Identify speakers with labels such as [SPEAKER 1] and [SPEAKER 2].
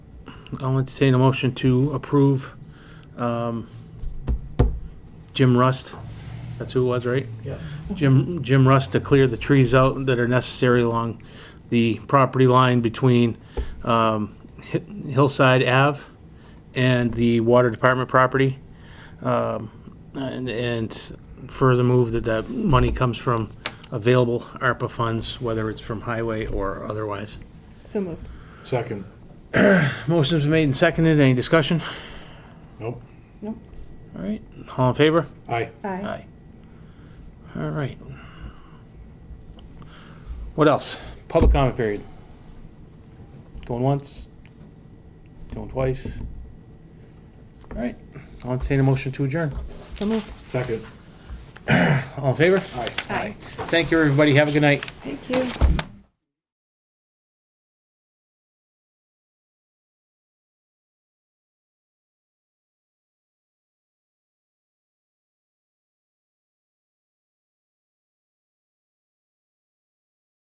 [SPEAKER 1] I'll entertain a motion to approve um, Jim Rust, that's who it was, right?
[SPEAKER 2] Yeah.
[SPEAKER 1] Jim, Jim Rust to clear the trees out that are necessary along the property line between um, Hi- Hillside Ave and the Water Department property. Um, And, and further move that that money comes from available ARPA funds, whether it's from highway or otherwise.
[SPEAKER 3] So moved.
[SPEAKER 2] Second.
[SPEAKER 1] Motion's been made and seconded. Any discussion?
[SPEAKER 2] Nope.
[SPEAKER 1] All right, all in favor?
[SPEAKER 2] Aye.
[SPEAKER 3] Aye.
[SPEAKER 1] All right. What else? Public comment period. Going once, going twice. All right, I'll entertain a motion to adjourn.
[SPEAKER 3] So moved.
[SPEAKER 2] Second.
[SPEAKER 1] All in favor?
[SPEAKER 2] Aye.
[SPEAKER 3] Aye.
[SPEAKER 1] Thank you, everybody. Have a good night.
[SPEAKER 3] Thank you.